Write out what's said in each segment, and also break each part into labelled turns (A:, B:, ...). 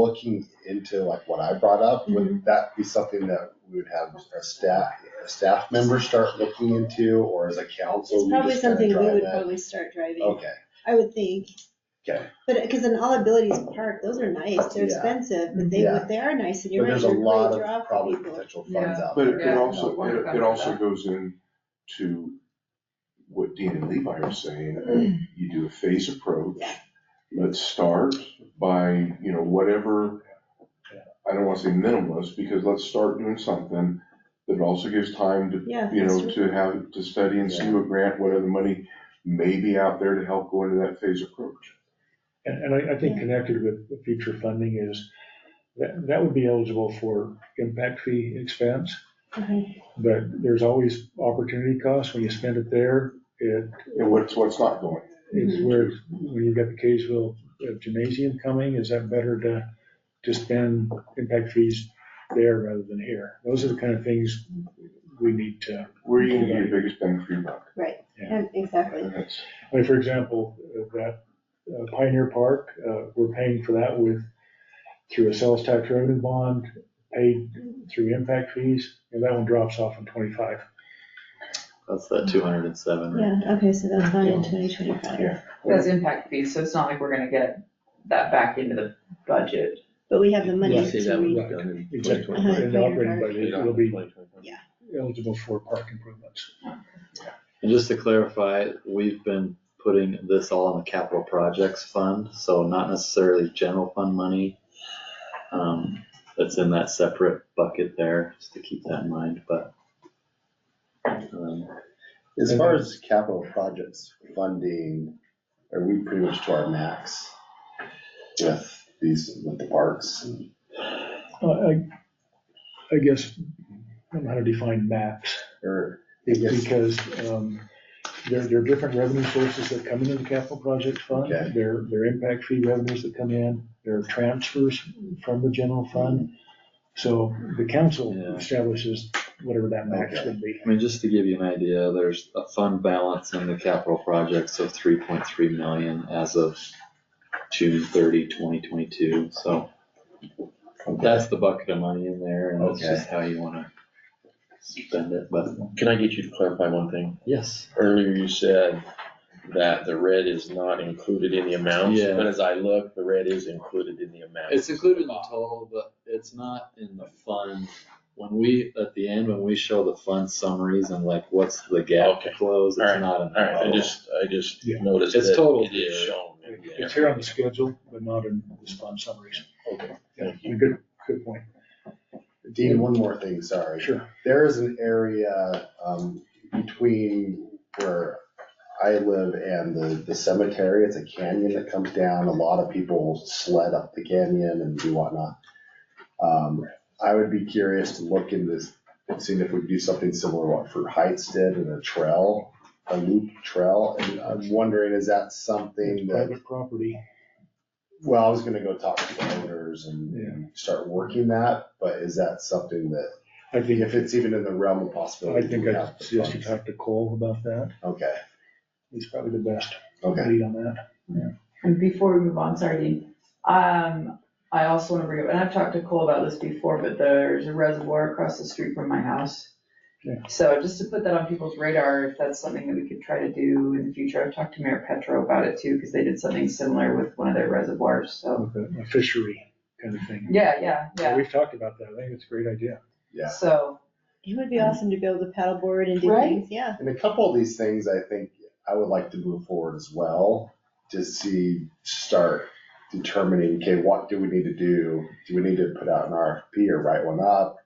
A: looking into like what I brought up,
B: Mm-hmm.
A: would that be something that we would have a staff, a staff member start looking into, or as a council?
B: It's
A: we
B: probably
A: just kinda
B: something we
A: drive
B: would
A: that?
B: probably start driving,
A: Okay,
B: I would think.
A: okay,
B: But, because in All Abilities Park, those are nice, they're
A: Yeah.
B: expensive, but they,
A: Yeah.
B: would- they are nice, and
A: but
B: you're right,
A: there's a
B: they're a
A: lot
B: great draw
A: of
B: for
A: probably
B: people.
A: potential funds out
C: But
A: there.
C: it could
A: Yeah.
C: also,
D: we're
C: it-
D: about
C: it also
D: that.
C: goes in to what Dean and Levi are saying, uh, you do a phase approach.
B: Mm. Yeah.
C: Let's start by, you know, whatever, I don't wanna say minimalist, because let's start doing something that also gives time to,
B: Yeah.
C: you know,
B: that's true.
C: to have, to study and see what grant, what other money may be out there to help go into that phase approach.
E: And, and I, I think
B: Yeah.
E: connected with the future funding is, that, that would be eligible for impact fee expense,
B: Okay.
E: but there's always opportunity cost when you spend it there. It,
C: And what's, what's not going.
E: it's where, when you've got the Kaysville uh, Gymnasium coming, is that better to, to spend impact fees there rather than here? Those are the kind of things we need to
C: Where are you gonna get your biggest bang for your buck?
B: Right,
E: Yeah.
B: Yeah, exactly,
C: And that's-
E: Like, for example, uh, that uh, Pioneer Park, uh, we're paying for that with, through a sales tax revenue bond, paid through impact fees, and that one drops off in twenty-five.
F: That's that two hundred and seven, right?
B: yeah, okay, so that's not in twenty twenty-five,
C: Yeah.
D: That's impact fees, so it's not like we're gonna get that back into the budget.
B: but we have the
F: You
B: money
F: see
B: to
F: that was
B: read.
E: read.
F: done in
E: Exactly,
F: 2025.
E: and the operating budget will be
F: And
E: eligible for park improvements.
F: just to clarify, we've been putting this all in the capital projects fund, so not necessarily general fund money. Um, that's in that separate bucket there, just to keep that in mind, but. um,
A: As far as capital projects funding, are we pretty much to our max with these, with the parks? and-
E: Uh, I, I guess, I don't know how to define maps.
A: Or, I guess,
E: because um, there, there are different revenue sources that come into the capital project fund.
A: Okay.
E: There, there are impact fee revenues that come in, there are transfers from the general fund. So the council
F: Yeah.
E: establishes whatever that max
A: Okay.
E: would be.
F: I mean, just to give you an idea, there's a fund balance in the capital projects of three point three million as of June 30, 2022. so. That's the bucket of money in there, and that's
A: Okay.
F: just how you wanna spend it, but,
G: Can I get you to clarify one thing?
F: yes,
G: Earlier you said that the red is not included in the amounts,
F: Yeah.
G: but as I look, the red is included in the amount.
F: it's included in the total, but it's not in the fund. When we, at the end, when we show the fund summaries and like, what's the gap to
G: Okay.
F: close, it's
G: Alright.
F: not in the
G: All right, I
F: total.
G: just, I just
E: Yeah.
G: noticed
F: It's
G: that
F: total
G: it is
F: here.
G: shown. in there.
E: It's here on the schedule, but not in the fund summaries. Yeah, Good, good point.
A: Dean, one more thing, sorry.
E: Sure.
A: There is an area, um, between where I live and the, the cemetery, it's a canyon that comes down, a lot of people sled up the canyon and do whatnot. Um, I would be curious to look in this, seeing if we could do something similar to what Fruit Heights did in a trail, a loop trail, and I'm wondering, is that something that
E: Private property,
A: well, I was gonna go talk to the owners and, and start working that, but is that something that,
E: I think,
A: if it's even in the realm of
E: I
A: possibility?
E: think
A: we
E: I
A: have the
E: suggest you
A: funds?
E: talk to Cole about that.
A: Okay,
E: He's probably the best
A: okay.
E: lead on that.
D: And before we move on, sorry, Dean, um, I also wanna bring up, and I've talked to Cole about this before, but there's a reservoir across the street from my house.
E: Yeah.
D: So just to put that on people's radar, if that's something that we could try to do in the future, I've talked to Mayor Petro about it too, cause they did something similar with one of their reservoirs, so.
E: Like a- A fishery kind of thing.
D: Yeah, yeah, yeah,
E: We've talked about that. I think it's a great idea.
A: Yeah.
D: so,
B: It would be awesome to go with the paddleboard and do
D: Right?
B: things, yeah.
A: And a couple of these things, I think I would like to move forward as well, to see, start determining, okay, what do we need to do? Do we need to put out an RFP or write one up?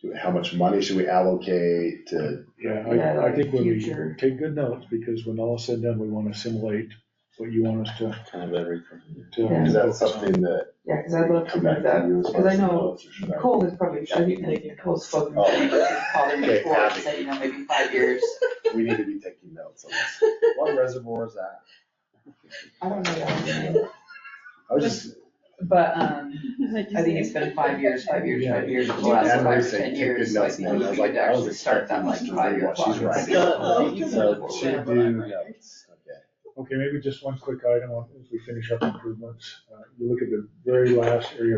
A: Do, how much money should we allocate to,
E: Yeah,
D: Yeah,
E: I, I
D: like
E: think when we
D: future.
E: take good notes, because when all is said and done, we wanna assimilate what you want us to,
F: Kind of everything.
E: to.
D: Yeah.
A: is that
E: focus on.
A: something that
D: yeah, cause I'd love to
A: come
D: do
A: back to
D: that.
A: you as
D: because
A: far
D: I
A: as the
D: know
A: notes, or should I-
D: Cole has probably, I think, I think Cole's spoken
A: Oh.
D: to me, but he's called him
A: Okay,
D: before, and
A: Abby.
D: said, you know, maybe five years.
A: We need to be taking notes on this. What reservoir is that?
D: I don't know that name,
A: I was just,
D: but, um,
B: What'd you
D: I think
B: say?
D: it's been five years, five years, five years, the
A: Dude,
D: last
A: Anne Marie
D: five or
A: said,
D: ten
A: "Take
D: years,
A: good
D: so I
A: notes,
D: think
A: man."
D: we
A: I was
D: could
A: like, I was
D: actually start that
A: expecting to
D: like five
A: read
D: year
A: what she's
D: clock. and see
A: writing.
D: what we
A: So
D: can do.
A: to do notes, okay.
E: Okay, maybe just one quick item on, as we finish up improvements. Uh, You look at the very last area